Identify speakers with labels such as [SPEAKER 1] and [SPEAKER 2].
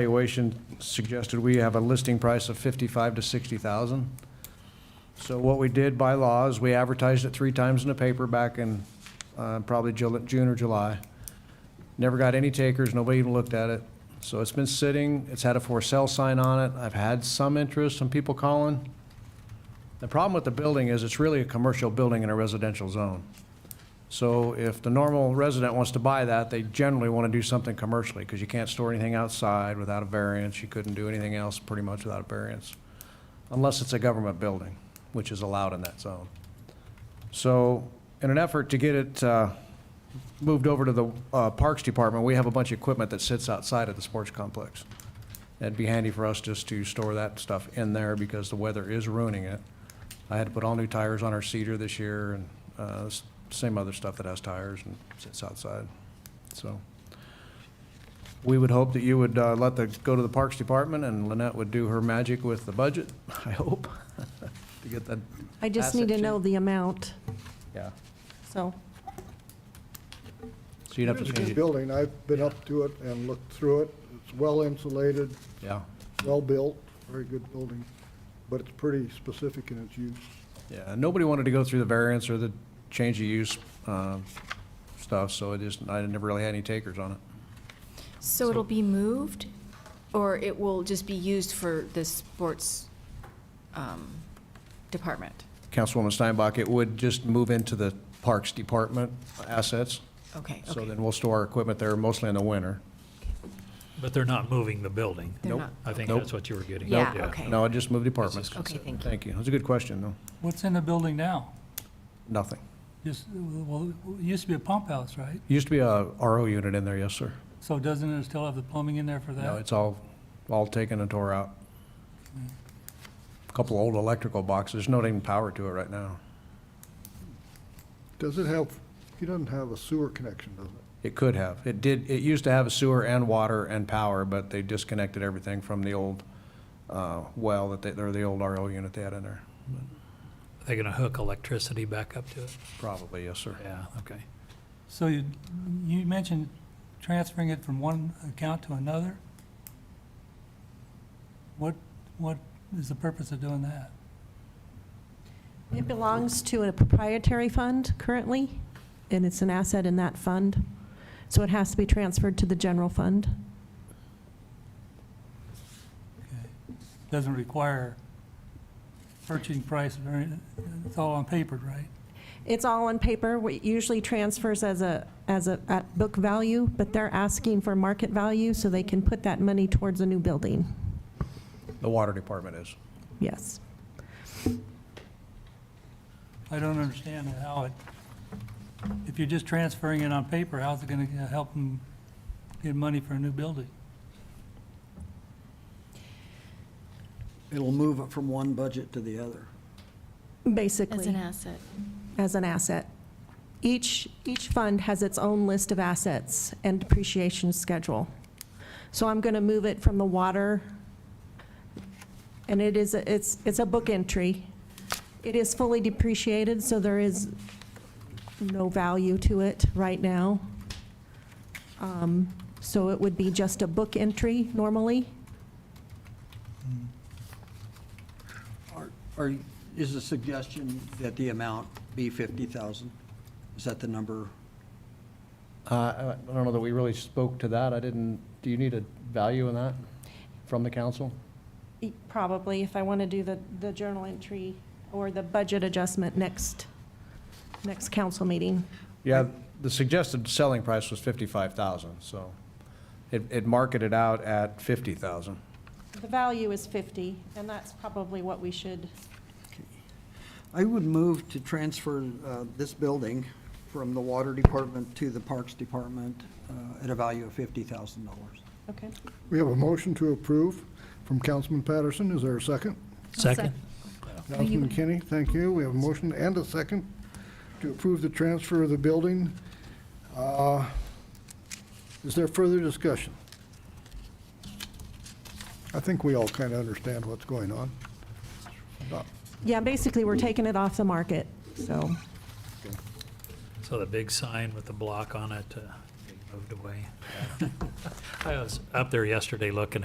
[SPEAKER 1] valuation suggested we have a listing price of fifty-five to sixty thousand. So what we did by law is we advertised it three times in the paper back in, uh, probably Jul- June or July. Never got any takers, nobody even looked at it. So it's been sitting, it's had a for sale sign on it, I've had some interest, some people calling. The problem with the building is it's really a commercial building in a residential zone. So if the normal resident wants to buy that, they generally want to do something commercially, because you can't store anything outside without a variance, you couldn't do anything else pretty much without a variance, unless it's a government building, which is allowed in that zone. So, in an effort to get it uh, moved over to the uh, Parks Department, we have a bunch of equipment that sits outside of the sports complex. It'd be handy for us just to store that stuff in there, because the weather is ruining it. I had to put all new tires on our Cedar this year, and uh, s- same other stuff that has tires and sits outside, so. We would hope that you would uh, let the, go to the Parks Department, and Lynette would do her magic with the budget, I hope, to get that.
[SPEAKER 2] I just need
[SPEAKER 1] asset
[SPEAKER 2] to know
[SPEAKER 1] cheap.
[SPEAKER 2] the amount,
[SPEAKER 1] Yeah,
[SPEAKER 2] so.
[SPEAKER 1] so you'd have to
[SPEAKER 3] It's a
[SPEAKER 1] change
[SPEAKER 3] good
[SPEAKER 1] it.
[SPEAKER 3] building. I've been up to it and looked through it. It's well insulated,
[SPEAKER 1] Yeah,
[SPEAKER 3] well-built, very good building, but it's pretty specific in its use.
[SPEAKER 1] yeah. Nobody wanted to go through the variance or the change of use uh, stuff, so it is, I never really had any takers on it.
[SPEAKER 4] So it'll be moved, or it will just be used for the sports um, department?
[SPEAKER 1] Councilwoman Steinbach, it would just move into the Parks Department assets,
[SPEAKER 4] Okay,
[SPEAKER 1] so
[SPEAKER 4] okay.
[SPEAKER 1] then we'll store our equipment there mostly in the winter.
[SPEAKER 5] But they're not moving the building.
[SPEAKER 4] They're
[SPEAKER 1] Nope.
[SPEAKER 4] not-
[SPEAKER 5] I think
[SPEAKER 1] Nope.
[SPEAKER 5] that's what you were getting
[SPEAKER 4] Yeah,
[SPEAKER 5] at.
[SPEAKER 4] okay.
[SPEAKER 1] No, I just moved departments.
[SPEAKER 4] Okay, thank you.
[SPEAKER 1] Thank you. That's a good question, though.
[SPEAKER 6] What's in the building now?
[SPEAKER 1] Nothing.
[SPEAKER 6] Just, well, it used to be a pump house, right?
[SPEAKER 1] Used to be a RO unit in there, yes, sir.
[SPEAKER 6] So doesn't it still have the plumbing in there for that?
[SPEAKER 1] No, it's all, all taken and tore out. A Couple old electrical boxes, not even power to it right now.
[SPEAKER 3] Does it have, it doesn't have a sewer connection, does it?
[SPEAKER 1] It could have. It did, it used to have a sewer and water and power, but they disconnected everything from the old uh, well that they, or the old RO unit they had in there.
[SPEAKER 5] They're going to hook electricity back up to it?
[SPEAKER 1] Probably, yes, sir.
[SPEAKER 5] Yeah, okay.
[SPEAKER 6] So you, you mentioned transferring it from one account to another? What, what is the purpose of doing that?
[SPEAKER 2] It belongs to a proprietary fund currently, and it's an asset in that fund. So it has to be transferred to the general fund.
[SPEAKER 6] Okay. Doesn't require purchasing price, or any- it's all on paper, right?
[SPEAKER 2] It's all on paper, What usually transfers as a, as a, at book value, but they're asking for market value so they can put that money towards a new building.
[SPEAKER 1] The water department is.
[SPEAKER 2] Yes.
[SPEAKER 6] I don't understand how it, if you're just transferring it on paper, how's it gonna help them get money for a new building?
[SPEAKER 7] It'll move it from one budget to the other.
[SPEAKER 4] As
[SPEAKER 2] Basically.
[SPEAKER 4] an asset.
[SPEAKER 2] as an asset. Each, each fund has its own list of assets and depreciation schedule. So I'm going to move it from the water, and it is, a- it's, it's a book entry. It is fully depreciated, so there is no value to it right now. Um, So it would be just a book entry normally.
[SPEAKER 7] Are- Are, is the suggestion that the amount be 50,000? Is that the number?
[SPEAKER 1] Uh, I I don't know that we really spoke to that. I didn't, do you need a value in that from the council?
[SPEAKER 2] E- Probably, if I want to do the, the journal entry or the budget adjustment next, next council meeting.
[SPEAKER 1] Yeah, the suggested selling price was 55,000, so it, it marketed out at 50,000.
[SPEAKER 2] The value is 50, and that's probably what we should,
[SPEAKER 7] I would move to transfer uh, this building from the Water Department to the Parks Department uh, at a value of $50,000.
[SPEAKER 2] okay?
[SPEAKER 3] We have a motion to approve from Councilman Patterson. Is there a second?
[SPEAKER 5] Second?
[SPEAKER 3] Councilman McKinney, thank you. We have a motion and a second to approve the transfer of the building. Uh, Is there further discussion? I think we all kind of understand what's going on. Not-
[SPEAKER 2] Yeah, basically, we're taking it off the market, so,
[SPEAKER 5] So the big sign with the block on it, uh, moved away. I was up there yesterday looking at.